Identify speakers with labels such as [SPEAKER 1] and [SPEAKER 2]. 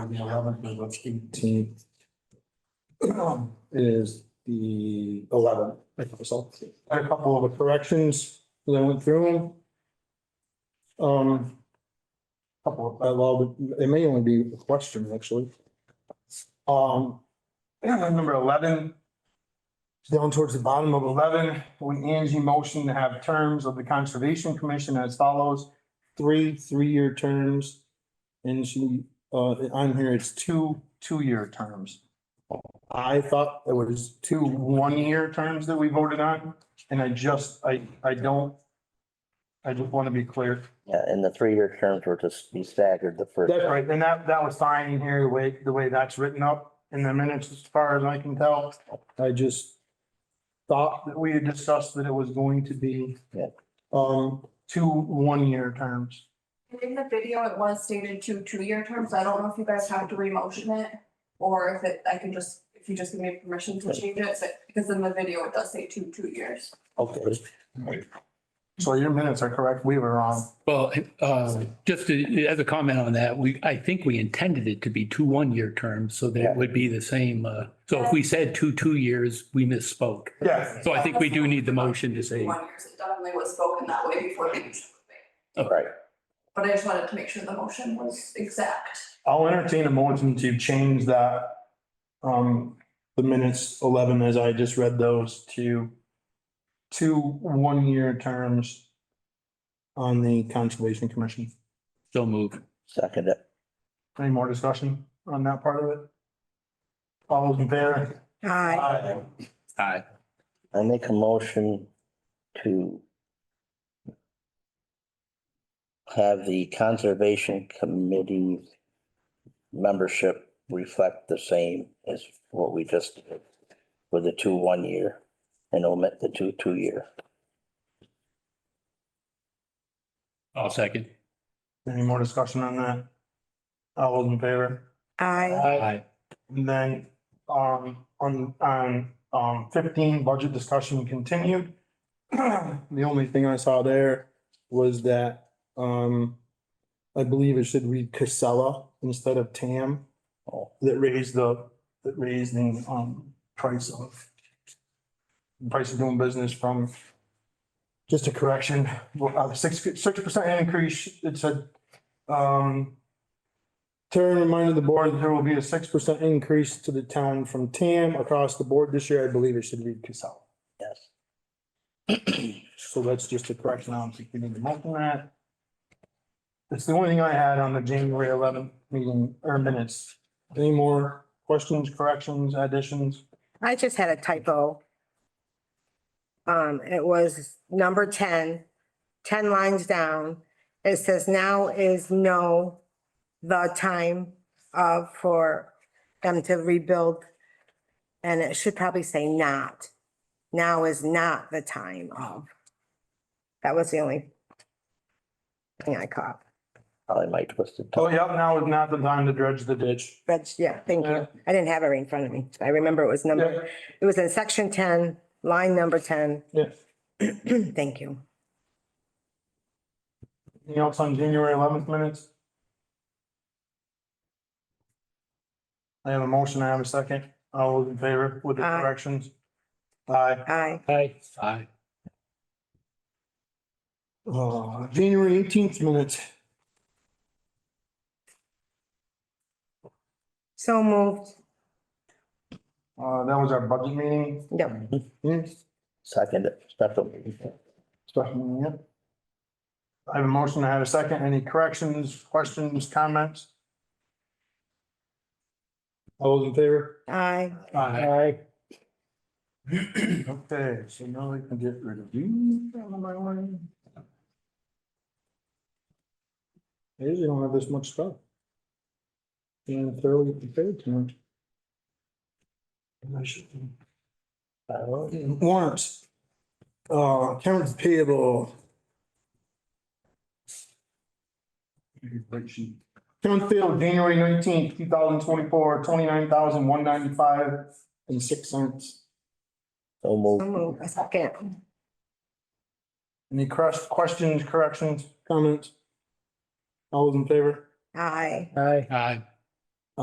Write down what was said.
[SPEAKER 1] on the eleventh and the eighteenth. Is the eleventh, I think so. Had a couple of corrections, that I went through them. Um. Couple, of- uh, well, it may only be a question, actually. Um, number eleven. Down towards the bottom of eleven, when Angie motion to have terms of the Conservation Commission as follows. Three, three-year terms. And she, uh, on here, it's two, two-year terms. I thought it was two one-year terms that we voted on, and I just, I, I don't. I just want to be clear.
[SPEAKER 2] Yeah, and the three-year terms were to be staggered the first.
[SPEAKER 1] That's right, and that, that was fine in here, the way, the way that's written up in the minutes, as far as I can tell. I just thought that we had discussed that it was going to be
[SPEAKER 2] Yeah.
[SPEAKER 1] um, two one-year terms.
[SPEAKER 3] In the video, it was stated two two-year terms. I don't know if you guys have to re-motion it or if it, I can just, if you just give me permission to change it, but- because in the video, it does say two, two years.
[SPEAKER 2] Okay.
[SPEAKER 1] So your minutes are correct, we were wrong.
[SPEAKER 4] Well, uh, just to- as a comment on that, we, I think we intended it to be two one-year terms, so that
[SPEAKER 2] Yeah.
[SPEAKER 4] it would be the same. uh, So if we said two two years, we misspoke.
[SPEAKER 1] Yes.
[SPEAKER 4] So I think we do need the motion to say,
[SPEAKER 3] One years, it definitely was spoken that way before the motion was made.
[SPEAKER 2] Right.
[SPEAKER 3] But I just wanted to make sure the motion was exact.
[SPEAKER 1] I'll entertain a motion to change that, um, the minutes eleven as I just read those to two one-year terms on the Conservation Commission.
[SPEAKER 4] so move.
[SPEAKER 2] Second, it.
[SPEAKER 1] Any more discussion on that part of it? All those in favor? Aye.
[SPEAKER 4] Aye.
[SPEAKER 2] I make a motion to have the Conservation Committee membership reflect the same as what we just did with the two one-year and omit the two two-year.
[SPEAKER 4] I'll second.
[SPEAKER 1] Any more discussion on that? All those in favor?
[SPEAKER 5] I
[SPEAKER 4] Aye.
[SPEAKER 1] And then, um, on, on, um, fifteen, budget discussion continued. The only thing I saw there was that, um, I believe it should read Casella instead of Tam. That raised the, that raised the, um, price of price of doing business from just a correction, well, uh, six, six percent increase, it said, um, Terry reminded the board that there will be a six percent increase to the town from TAM across the board this year. I believe it should read Casella.
[SPEAKER 2] Yes.
[SPEAKER 1] So that's just a correction. I don't think we need to mention that. That's the only thing I had on the January eleventh meeting or minutes. Any more questions, corrections, additions?
[SPEAKER 5] I just had a typo. Um, it was number 10, 10 lines down. It says now is no the time of for them to rebuild. And it should probably say not. Now is not the time of. That was the only thing I caught.
[SPEAKER 2] Probably my twisted
[SPEAKER 1] Oh,
[SPEAKER 2] tongue.
[SPEAKER 1] yeah, now is not the time to dredge the ditch.
[SPEAKER 5] But yeah, thank you. I didn't have it right in front of me. I remember it was number
[SPEAKER 1] Yeah,
[SPEAKER 5] It was in section ten, line number ten.
[SPEAKER 1] yeah.
[SPEAKER 5] Thank you.
[SPEAKER 1] Anything else on January eleventh minutes? I have a motion, I have a second. All those in favor with the
[SPEAKER 5] Aye.
[SPEAKER 1] corrections? Aye.
[SPEAKER 5] Aye.
[SPEAKER 4] Aye. Aye.
[SPEAKER 1] Uh, January eighteenth minutes.
[SPEAKER 5] So moved.
[SPEAKER 1] Uh, that was our budget meeting.
[SPEAKER 5] Yep.
[SPEAKER 1] Yes.
[SPEAKER 2] Second, it. special meeting.
[SPEAKER 1] special meeting, yep. I have a motion, I have a second. Any corrections, questions, comments? All those in favor?
[SPEAKER 5] Aye.
[SPEAKER 1] Aye. Okay, so now we can get rid of you. out of my way. I usually don't have this much stuff. And thoroughly prepared tonight. I should be. Warrants. Uh, accounts payable. Accounts payable, January nineteenth, two thousand twenty-four, twenty-nine thousand, one ninety-five and six cents.
[SPEAKER 2] So
[SPEAKER 5] So
[SPEAKER 2] move.
[SPEAKER 5] moved. A second.
[SPEAKER 1] Any crus- questions, corrections, comments? All those in favor?
[SPEAKER 5] Aye.
[SPEAKER 4] Aye. Aye.